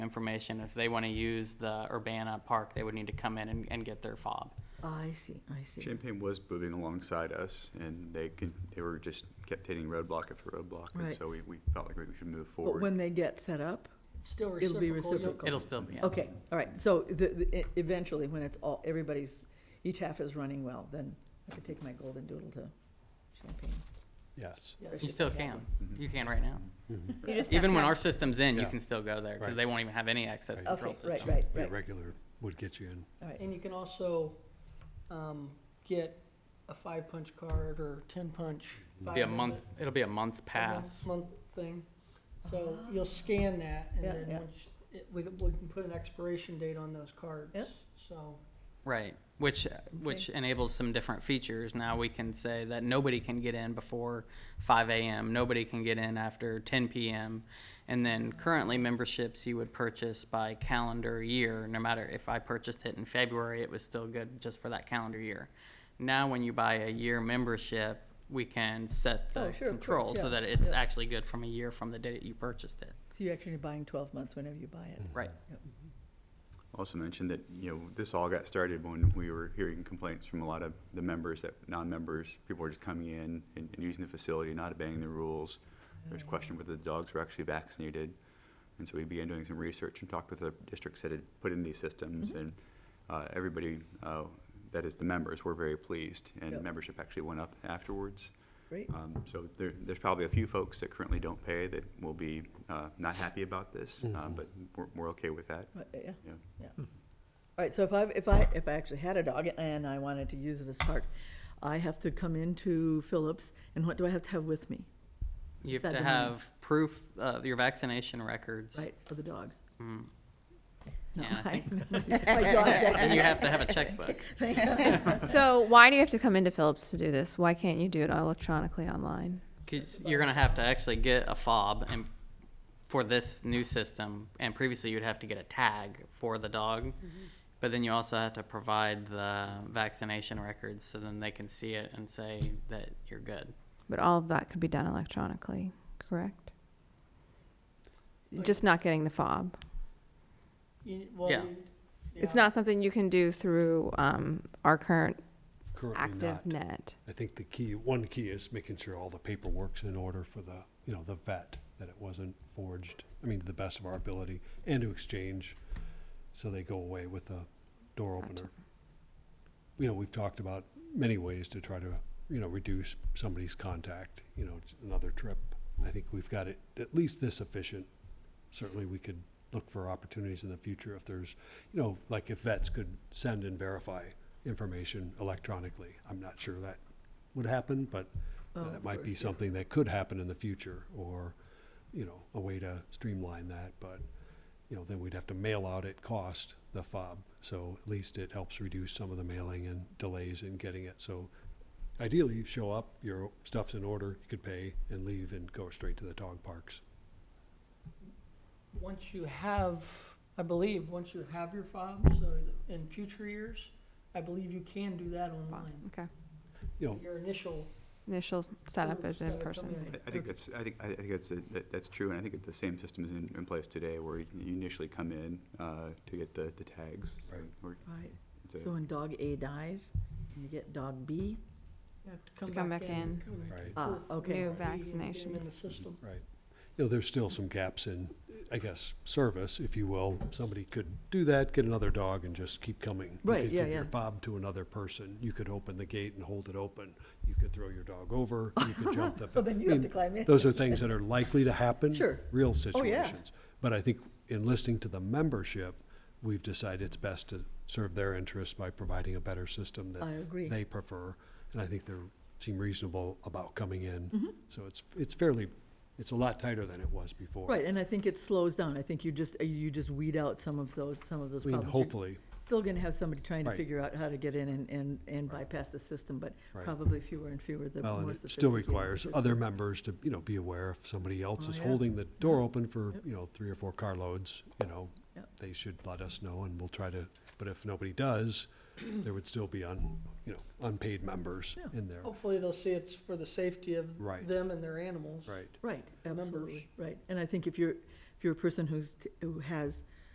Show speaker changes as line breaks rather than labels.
information. If they want to use the Urbana Park, they would need to come in and, and get their fob.
I see, I see.
Champagne was moving alongside us, and they could, they were just kept hitting roadblock after roadblock, and
Right.
so we, we felt like we should move
But when
forward.
they get set up?
It's still
It'll be
reciprocal. You'll-
reciprocal.
It'll still be.
Okay, all right, so the, the- e- eventually, when it's all, everybody's, each half is running well, then I could take my golden doodle to Champagne.
Yes.
You still can.
Mm-hmm.
You can right now.
You just have
Even
to
when
have-
our system's in, you
Yeah.
can still go there because
Right.
they won't even have any access
Right.
control
Okay, right,
system.
right,
Your
right,
regular would get you in.
all right.
And you can also um, get a five-punch card or 10-punch.
It'll be a month, it'll be a month pass.
Month thing. So you'll scan that and
Yeah, yeah.
then once, it- we can we can put an expiration date on those cards.
Yep.
So,
Right, which, which enables some different features. Now we can say that nobody can get in before five AM, nobody can get in after ten PM. And then currently memberships you would purchase by calendar year, no matter if I purchased it in February, it was still good just for that calendar year. Now, when you buy a year membership, we can set
Oh,
the
sure, of course,
control so
yeah,
that it's
yeah.
actually good from a year from the date you purchased it,
So you're actually buying twelve months whenever you buy it.
right?
Also mentioned that, you know, this all got started when we were hearing complaints from a lot of the members, that non-members, people were just coming in and, and using the facility, not obeying the rules. There's question whether the dogs were actually vaccinated. And so we began doing some research and talked with other districts that had put in these
Mm-hmm.
systems. And uh, everybody, uh, that is the members, were very pleased.
Yep.
And membership actually went up afterwards.
Mm.
Great,
Um, So there, there's probably a few folks that currently don't pay that will be uh, not happy about this, uh, but we're, we're okay with that.
Right, Uh, yeah.
Yeah.
All right, so if I, if I, if I actually had a dog and I wanted to use this park, I have to come into Phillips, and what do I have to have with me?
You have
Set
to
them on.
have proof of your vaccination records.
Right, for the dogs?
Mm.
No,
Yeah, I
I-
think-
My dog's.
And you have to have a checkbook.
Thank God.
So why do you have to come into Phillips to do this? Why can't you do it electronically online?
Because you're gonna have to actually get a fob and for this new system, and previously you'd have to get a tag for the dog. But then you also have to provide the vaccination records, so then they can see it and say that you're good.
But all of that could be done electronically, correct? Just not getting the fob.
you, well.
Yeah.
you-
It's
yeah.
not something you can do through um, our current
Currently
active
not.
net.
I think the key, one key is making sure all the paperwork's in order for the, you know, the vet, that it wasn't forged, I mean, to the best of our ability, and to exchange, so they go away with a door
Gotcha.
opener. You know, we've talked about many ways to try to, you know, reduce somebody's contact, you know, it's another trip. I think we've got it at least this efficient. Certainly, we could look for opportunities in the future if there's, you know, like if vets could send and verify information electronically. I'm not sure that would happen, but
Oh,
that
of
might be
course, yeah.
something that could happen in the future or, you know, a way to streamline that, but, you know, then we'd have to mail out at cost the fob. So at least it helps reduce some of the mailing and delays in getting it. So ideally, you show up, your stuff's in order, you could pay and leave and go straight to the dog parks.
Once you have, I believe, once you have your fob, so in future years, I believe you can do that online.
Okay.
You know,
Your initial
Initial setup is in
Gotta come
person.
in.
I- I think that's, I think, I I think that's, a- that- that's true, and I think that the same system is in, in place today where you initially come in uh, to get the, the tags. so
Right.
we're-
All right,
it's a-
so when dog A dies, and you get dog B,
You have to come,
To come back in.
come back
Right.
to
Ah,
proof
okay.
of
New
ID and get 'em In the
vaccinations.
system.
Right. You know, there's still some gaps in, I guess, service, if you will. Somebody could do that, get another dog and just keep coming.
Right,
You could
yeah,
give your
yeah.
fob to another person. You could open the gate and hold it open. You could throw your dog over. You could jump the.
Well, then you
I
have
mean,
to climb in.
Those are things that are likely to happen.
Sure.
Real
Oh, yeah.
situations. But I think in listening to the membership, we've decided it's best to serve their interests by providing a better system that
I agree.
they prefer. And I think they're, seem reasonable about coming
Mm-hmm.
in. So it's, it's fairly, it's a lot tighter than it was before.
Right, and I think it slows down. I think you just, uh, you just weed out some of those, some of those
I mean,
problems. You're
hopefully,
Still gonna have somebody trying to
Right.
figure out how to get in and, and, and bypass the system, but
Right.
probably fewer and fewer the
well, and
more
it still
sophisticated the
requires
system.
other members to, you know, be aware if somebody else
Oh,
is
yeah.
holding the door open for,
Yep.
you know, three or four carloads, you know,
Yep.
they should let us know and we'll try to, but if nobody does, there would still be un, you know, unpaid members
Yeah. Oh.
in there.
Hopefully they'll see it's for the safety of
Right.
them and their animals.
Right.
Right,
members.
absolutely, right. And I think if you're, if you're a person who's, t- who has